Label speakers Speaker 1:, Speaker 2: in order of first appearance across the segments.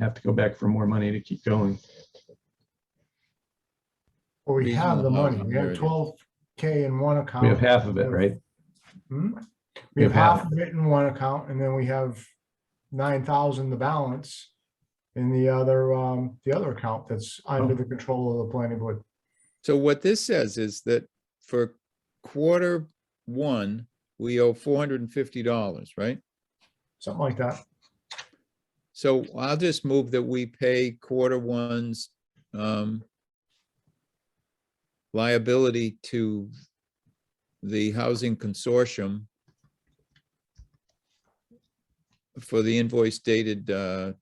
Speaker 1: have to go back for more money to keep going.
Speaker 2: Well, we have the
Speaker 3: Reasonable
Speaker 2: money. We have
Speaker 3: amount.
Speaker 2: twelve K in one account.
Speaker 1: We have half of it, right?
Speaker 2: Hmm? We have half of it in one account and then we have nine thousand, the balance in the other, um, the other account that's
Speaker 1: Oh.
Speaker 2: under the control of the planning board.
Speaker 3: So what this says is that for quarter one, we owe four hundred and fifty dollars, right?
Speaker 2: Something like that.
Speaker 3: So I'll just move that we pay quarter one's um liability to the Housing Consortium for the invoice dated uh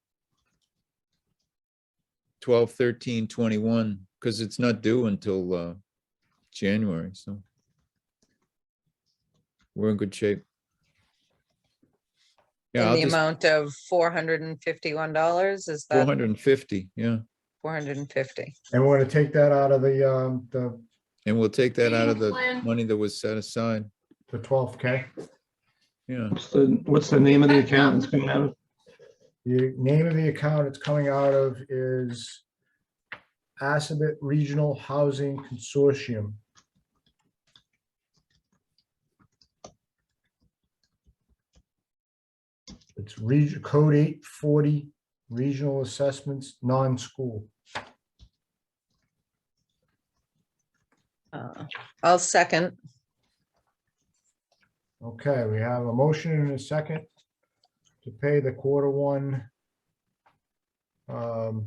Speaker 3: twelve thirteen twenty-one, because it's not due until uh January, so we're in good shape. Yeah,
Speaker 4: In
Speaker 3: I'll
Speaker 4: the
Speaker 3: just-
Speaker 4: amount of four hundred and fifty-one dollars, is
Speaker 3: Four
Speaker 4: that
Speaker 3: hundred and fifty, yeah,
Speaker 4: four hundred and fifty?
Speaker 2: And we're gonna take that out of the, um, the,
Speaker 3: and we'll take that out of the
Speaker 5: Plan.
Speaker 3: money that was set aside,
Speaker 2: the twelve K.
Speaker 3: yeah.
Speaker 1: What's the, what's the name of the account it's coming out of?
Speaker 2: The name of the account it's coming out of is Assabet Regional Housing Consortium. It's region, code eight forty, regional assessments, non-school.
Speaker 4: I'll second.
Speaker 2: Okay, we have a motion and a second to pay the quarter one um,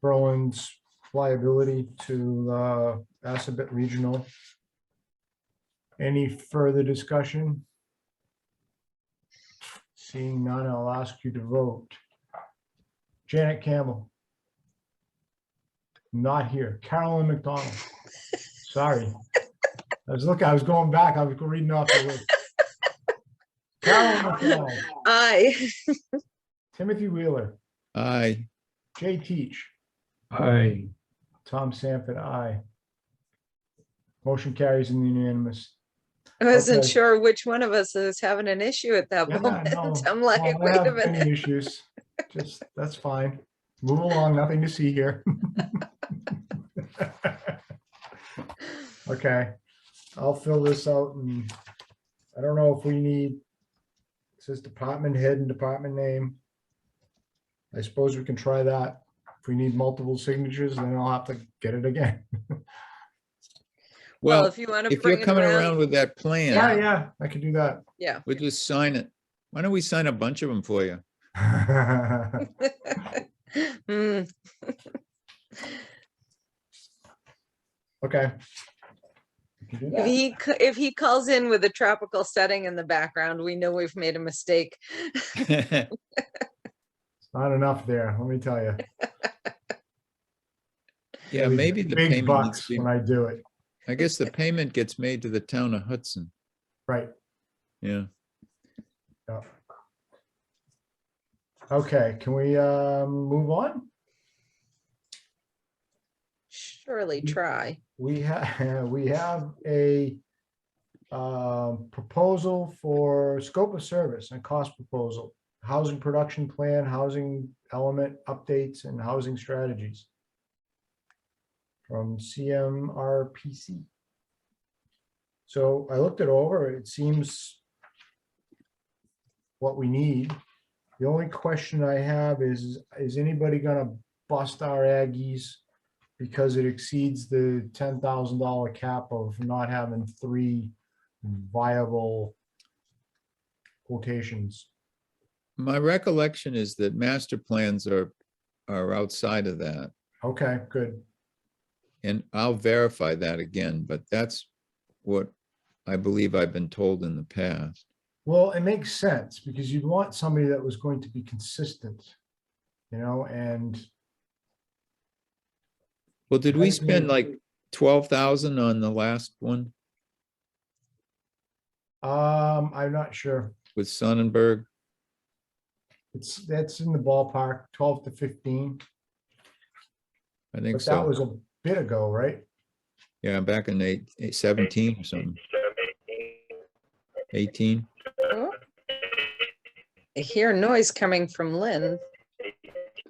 Speaker 2: Berlin's liability to uh Assabet Regional. Any further discussion? Seeing none, I'll ask you to vote. Janet Campbell. Not here. Carolyn McDonald. Sorry. I was looking, I was going back, I was reading off the list. Carolyn McDonald,
Speaker 4: Aye.
Speaker 2: Timothy Wheeler,
Speaker 3: Aye,
Speaker 2: Jay Teach,
Speaker 1: I,
Speaker 2: Tom Sanford, aye. Motion carries in the unanimous.
Speaker 4: I wasn't
Speaker 2: Okay.
Speaker 4: sure which one of us is having an issue at that
Speaker 2: Yeah, no,
Speaker 4: moment. I'm
Speaker 2: Well,
Speaker 4: like,
Speaker 2: I
Speaker 4: wait a
Speaker 2: have many
Speaker 4: minute.
Speaker 2: Issues, just, that's fine. Move along, nothing to see here. Okay, I'll fill this out and I don't know if we need, it says department head and department name. I suppose we can try that. If we need multiple signatures, then I'll have to get it again.
Speaker 4: Well,
Speaker 3: well,
Speaker 4: if you want to
Speaker 3: if you're
Speaker 4: bring it
Speaker 3: coming around
Speaker 4: around,
Speaker 3: with that
Speaker 2: Yeah,
Speaker 3: plan,
Speaker 2: yeah, I can do that.
Speaker 4: yeah.
Speaker 3: we'll just sign it. Why don't we sign a bunch of them for you?
Speaker 4: Mm,
Speaker 2: Okay. We can do
Speaker 4: If
Speaker 2: that.
Speaker 4: he, c- if he calls in with a tropical setting in the background, we know we've made a mistake.
Speaker 2: Not enough there, let me tell you.
Speaker 3: Yeah, maybe the
Speaker 2: Big
Speaker 3: payment, needs
Speaker 2: bucks
Speaker 3: to
Speaker 2: when
Speaker 3: be-
Speaker 2: I do it,
Speaker 3: I guess the payment gets made to the town of Hudson,
Speaker 2: right.
Speaker 3: yeah.
Speaker 2: yeah. Okay, can we um, move on?
Speaker 4: Surely
Speaker 2: Mm.
Speaker 4: try.
Speaker 2: We have, we have a um, proposal for scope of service and cost proposal, housing production plan, housing element updates and housing strategies from CMRPC. So I looked it over. It seems what we need. The only question I have is, is anybody gonna bust our Aggies? Because it exceeds the ten thousand dollar cap of not having three viable quotations.
Speaker 3: My recollection is that master plans are, are outside of that.
Speaker 2: Okay, good.
Speaker 3: And I'll verify that again, but that's what I believe I've been told in the past.
Speaker 2: Well, it makes sense because you'd want somebody that was going to be consistent, you know, and
Speaker 3: Well, did we
Speaker 2: Right, maybe.
Speaker 3: spend like twelve thousand on the last one
Speaker 2: um, I'm not sure.
Speaker 3: with Sonnenberg?
Speaker 2: It's, that's in the ballpark, twelve to fifteen,
Speaker 3: I think
Speaker 2: but that
Speaker 3: so.
Speaker 2: was a bit ago, right?
Speaker 3: Yeah, back in eight, eight- seventeen or something. Eighteen.
Speaker 4: Oh. I hear noise coming from Lynn.